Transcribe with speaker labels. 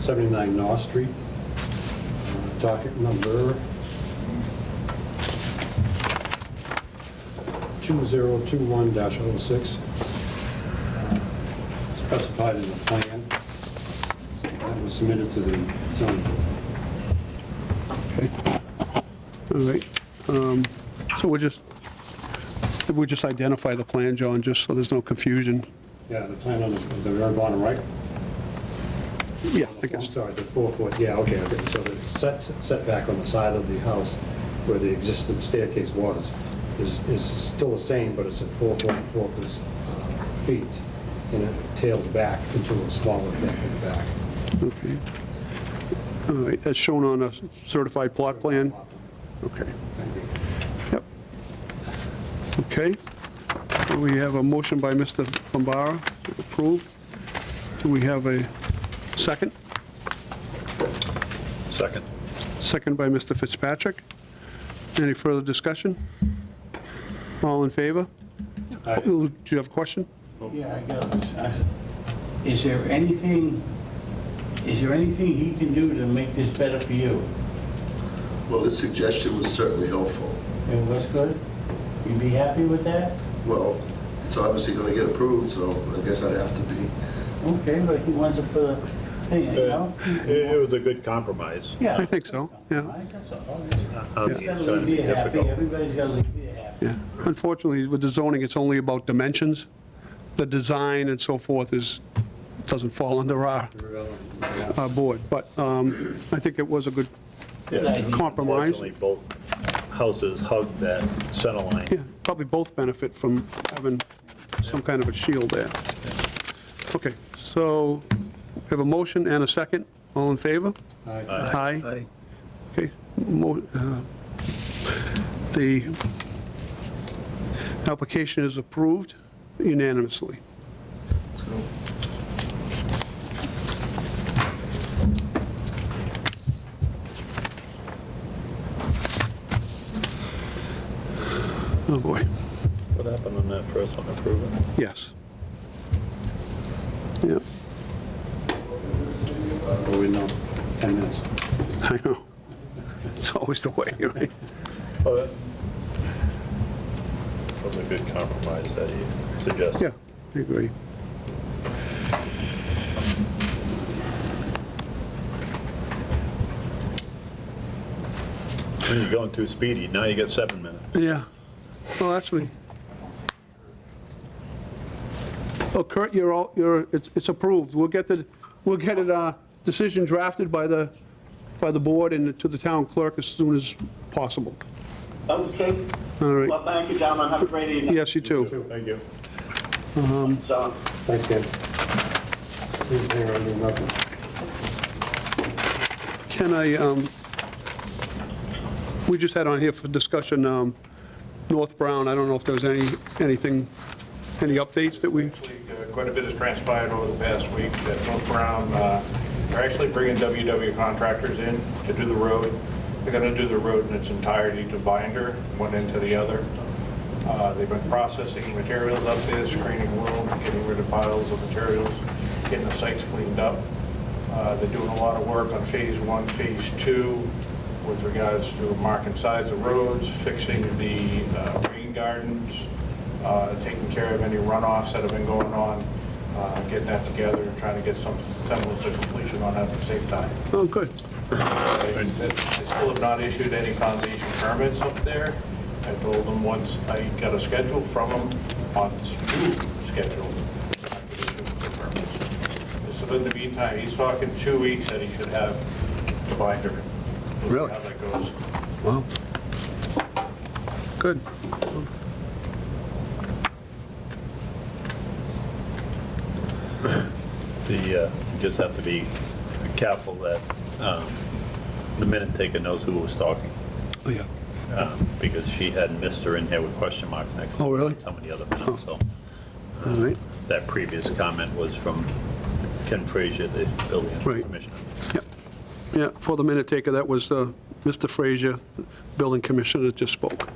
Speaker 1: 79 North Street, uh, docket number 2021-06, uh, specified in the plan that was submitted to the zoning board.
Speaker 2: All right. um, So we'll just, we'll just identify the plan, John, just so there's no confusion.
Speaker 1: Yeah, the plan on the, the very bottom right?
Speaker 2: Yeah, I
Speaker 1: I'm
Speaker 2: guess.
Speaker 1: sorry, the four foot, yeah, okay, okay, so the set setback on the side of the house where the existing staircase was is, is still the same, but it's at four foot, four pers- uh, feet, and it tails back into a smaller deck in the back.
Speaker 2: Okay. All right, that's shown on a certified plot plan? Okay.
Speaker 1: Thank you.
Speaker 2: Yep. Okay. So We have a motion by Mr. Bombara, approved. Do we have a second?
Speaker 3: Second.
Speaker 2: Second by Mr. Fitzpatrick. Any further discussion? All in favor?
Speaker 1: Aye.
Speaker 2: Do you have a question?
Speaker 4: Yeah, I got it. Uh, Is there anything, is there anything he can do to make this better for you?
Speaker 5: Well, his suggestion was certainly helpful.
Speaker 4: And what's good? You be happy with that?
Speaker 5: Well, it's obviously going to get approved, so I guess I'd have to be.
Speaker 4: Okay, but he wants to put a thing, you know?
Speaker 3: It it was a good compromise.
Speaker 4: Yeah.
Speaker 2: I think so, yeah.
Speaker 4: I guess so.
Speaker 3: Um,
Speaker 4: He's gotta leave you happy, everybody's gotta leave you happy.
Speaker 2: Yeah, unfortunately, with the zoning, it's only about dimensions. The design and so forth is, doesn't fall under our, our board, but um, I think it was a good,
Speaker 3: Yeah.
Speaker 2: Compromise.
Speaker 3: Fortunately, both houses hugged that center line.
Speaker 2: yeah, probably both benefit from having some kind of a shield there. Okay, so we have a motion and a second, all in favor?
Speaker 1: Aye.
Speaker 2: Aye. Okay, mo- uh, the application is approved unanimously. Oh, boy,
Speaker 3: What happened on that first one approval?
Speaker 2: yes. Yep,
Speaker 1: Oh, we know, 10 minutes.
Speaker 2: I know. It's always the way, right?
Speaker 3: Oh, that was a good compromise that he suggested.
Speaker 2: Yeah, I agree.
Speaker 3: When you're going too speedy, now you get seven minutes.
Speaker 2: Yeah. Well, actually. Oh, Kurt, you're all, you're, it's, it's approved. We'll get the, we'll get it, uh, decision drafted by the, by the board and to the town clerk as soon as possible.
Speaker 6: Okay.
Speaker 2: All right.
Speaker 6: Well, thank you, gentlemen. Have a great evening.
Speaker 2: Yes, you too.
Speaker 3: Thank you.
Speaker 6: So,
Speaker 1: Thanks, Ken. Please hang around, do nothing.
Speaker 2: Can I, um, we just had on here for discussion, um, North Brown. I don't know if there's any, anything, any updates that we,
Speaker 7: Actually, uh, Quite a bit has transpired over the past week that North Brown, uh, are actually bringing WW contractors in to do the road. They're going to do the road in its entirety to binder, one end to the other. Uh, They've been processing materials up there, screening room, getting rid of piles of materials, getting the sites cleaned up. Uh, They're doing a lot of work on phase one, phase two, with regards to marking size of roads, fixing the uh, rain gardens, uh, taking care of any runoffs that have been going on, uh, getting that together and trying to get some semblance of completion on that at the same time.
Speaker 2: oh, good.
Speaker 7: They they still have not issued any foundation permits up there. I told them once I got a schedule from them on this new schedule. I could issue the permits. So in the meantime, he's talking two weeks that he should have the binder. We'll see
Speaker 2: Really?
Speaker 7: How that goes.
Speaker 2: Wow. Good.
Speaker 3: The, uh, you just have to be careful that um, the minute taker knows who was talking,
Speaker 2: Oh, yeah.
Speaker 3: um, because she had Mr. in here with question marks next to
Speaker 2: Oh, really?
Speaker 3: some of the other minutes, so.
Speaker 2: All right.
Speaker 3: That previous comment was from Ken Frazier, the building
Speaker 2: Right.
Speaker 3: commissioner.
Speaker 2: Yep. Yeah, for the minute taker, that was uh, Mr. Frazier, building commissioner, that just spoke.